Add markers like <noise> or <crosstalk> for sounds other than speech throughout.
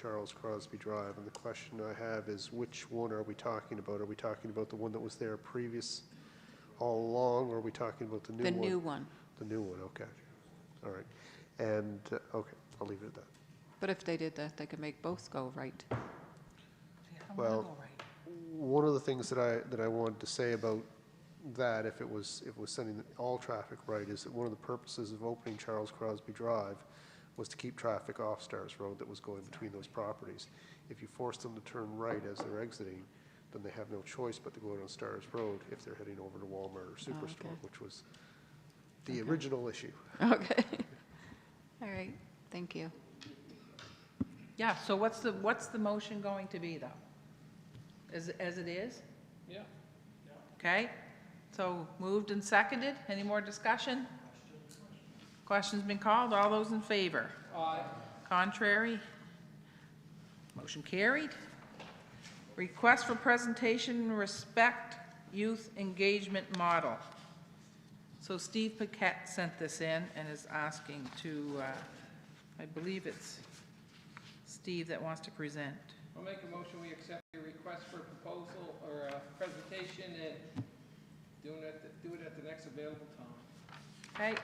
Charles Crosby Drive, and the question I have is which one are we talking about? Are we talking about the one that was there previous all along, or are we talking about the new The one? new one. The new one, okay. All right. And, uh, okay, I'll leave it at that. But if they did that, they could make both go right. Well, one of the things that I, that I wanted to say about that, if it was, if it was sending all traffic right, is that one of the purposes of opening Charles Crosby Drive was to keep traffic off Stars Road that was going between those properties. If you force them to turn right as they're exiting, then they have no choice but to go down Stars Road if they're heading over to Walmart or Superstore, which was the original issue. Okay. All right, thank you. Yeah, so what's the, what's the motion going to be, though? As, as it is? Yeah. Okay, so moved and seconded, any more discussion? Questions been called, all those in favor? Aye. Contrary? Motion carried. Request for presentation, respect youth engagement model. So Steve Paquette sent this in and is asking to, uh, I believe it's Steve that wants to present. I'll make a motion, we accept your request for proposal or uh, presentation and do it at, the- do it at the next available time. Okay?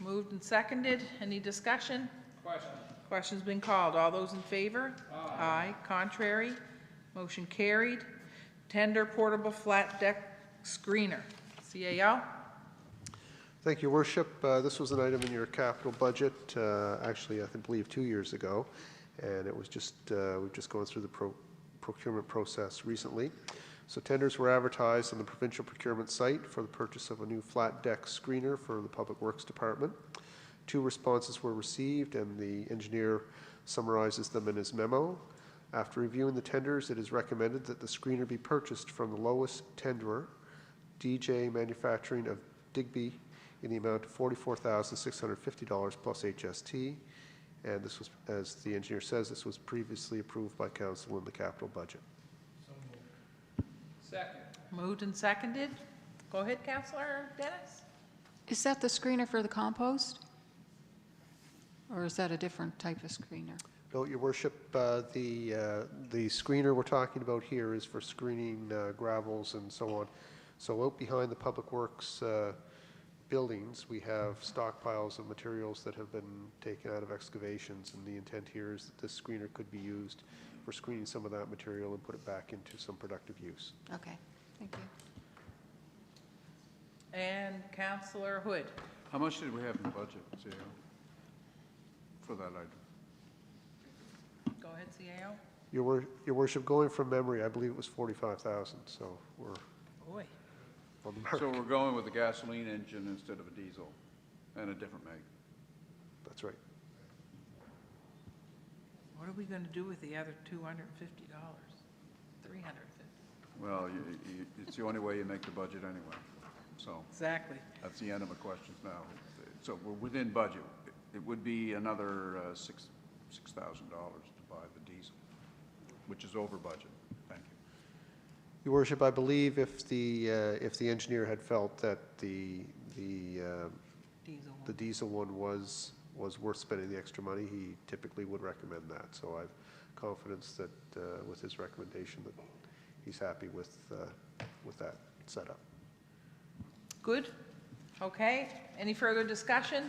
Moved and seconded. Any discussion? Question? Question's been called. All those in favor? Aye. Contrary? Motion carried. Tender portable flat deck screener, CAO. Thank you, Worship. Uh, This was an item in your capital budget, uh, actually, I think- believe, two years ago, and it was just, uh, we've just gone through the pro- procurement process recently. So tenders were advertised on the provincial procurement site for the purchase of a new flat deck screener for the Public Works Department. Two responses were received, and the engineer summarizes them in his memo. After reviewing the tenders, it is recommended that the screener be purchased from the lowest tenderer, DJ Manufacturing of Digby in the amount of $44,650 plus HST. And this was, as the engineer says, this was previously approved by council in the capital budget. Second? Moved and seconded. Go ahead, Counselor Dennis. Is that the screener for the compost? Or is that a different type of screener? No, your worship, uh, the, uh, the screener we're talking about here is for screening uh, gravels and so on. So out behind the Public Works uh, buildings, we have stockpiles of materials that have been taken out of excavations, and the intent here is that this screener could be used for screening some of that material and put it back into some productive use. Okay, thank you. And Counselor Hood. How much did we have in the budget, CAO, for that item? Go ahead, CAO. Your wor, your worship, going from memory, I believe it was 45,000, so we're Boy. on the mark. So we're going with a gasoline engine instead of a diesel and a different make. That's right. What are we going to do with the other $250? $350? Well, you- you- it's the only way you make the budget anyway. So Exactly. that's the end of my questions now. So we're within budget. It would be another uh, six $6,000 to buy the diesel, which is over budget. Thank you. Your worship, I believe if the, uh, if the engineer had felt that the, the, uh, Diesel the one. diesel one was, was worth spending the extra money, he typically would recommend that. So I've confidence that uh, with his recommendation that he's happy with, uh, with that setup. Good? Okay. Any further discussion?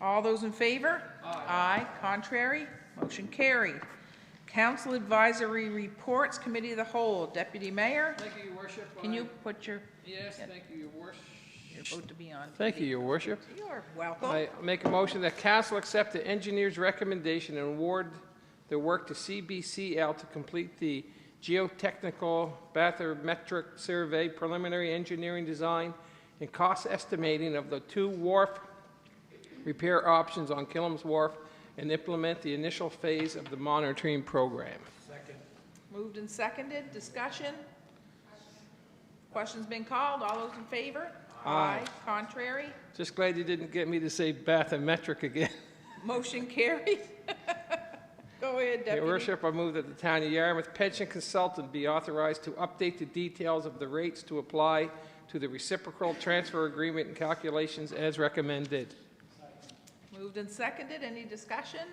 All those in favor? Aye. Contrary? Motion carried. Council Advisory Reports, Committee of the Whole. Deputy Mayor, Thank you, your worship. can you I- put your, Yes, thank you, your worship. your vote to be on? Thank you, your worship. You're welcome. I make a motion that council accept the engineer's recommendation and award the work to CBCL to complete the geotechnical bathymetric survey, preliminary engineering design, and cost estimating of the two wharf repair options on Killam's Wharf, and implement the initial phase of the monitoring program. Moved and seconded. Discussion? Questions been called? All those in favor? Aye. Contrary? Just glad you didn't get me to say bathymetric again. <laughs> Motion carried. <laughs> Go ahead, Deputy. Your worship, I move that the town of Yarmouth pension consultant be authorized to update the details of the rates to apply to the reciprocal transfer agreement and calculations as recommended. Moved and seconded. Any discussion?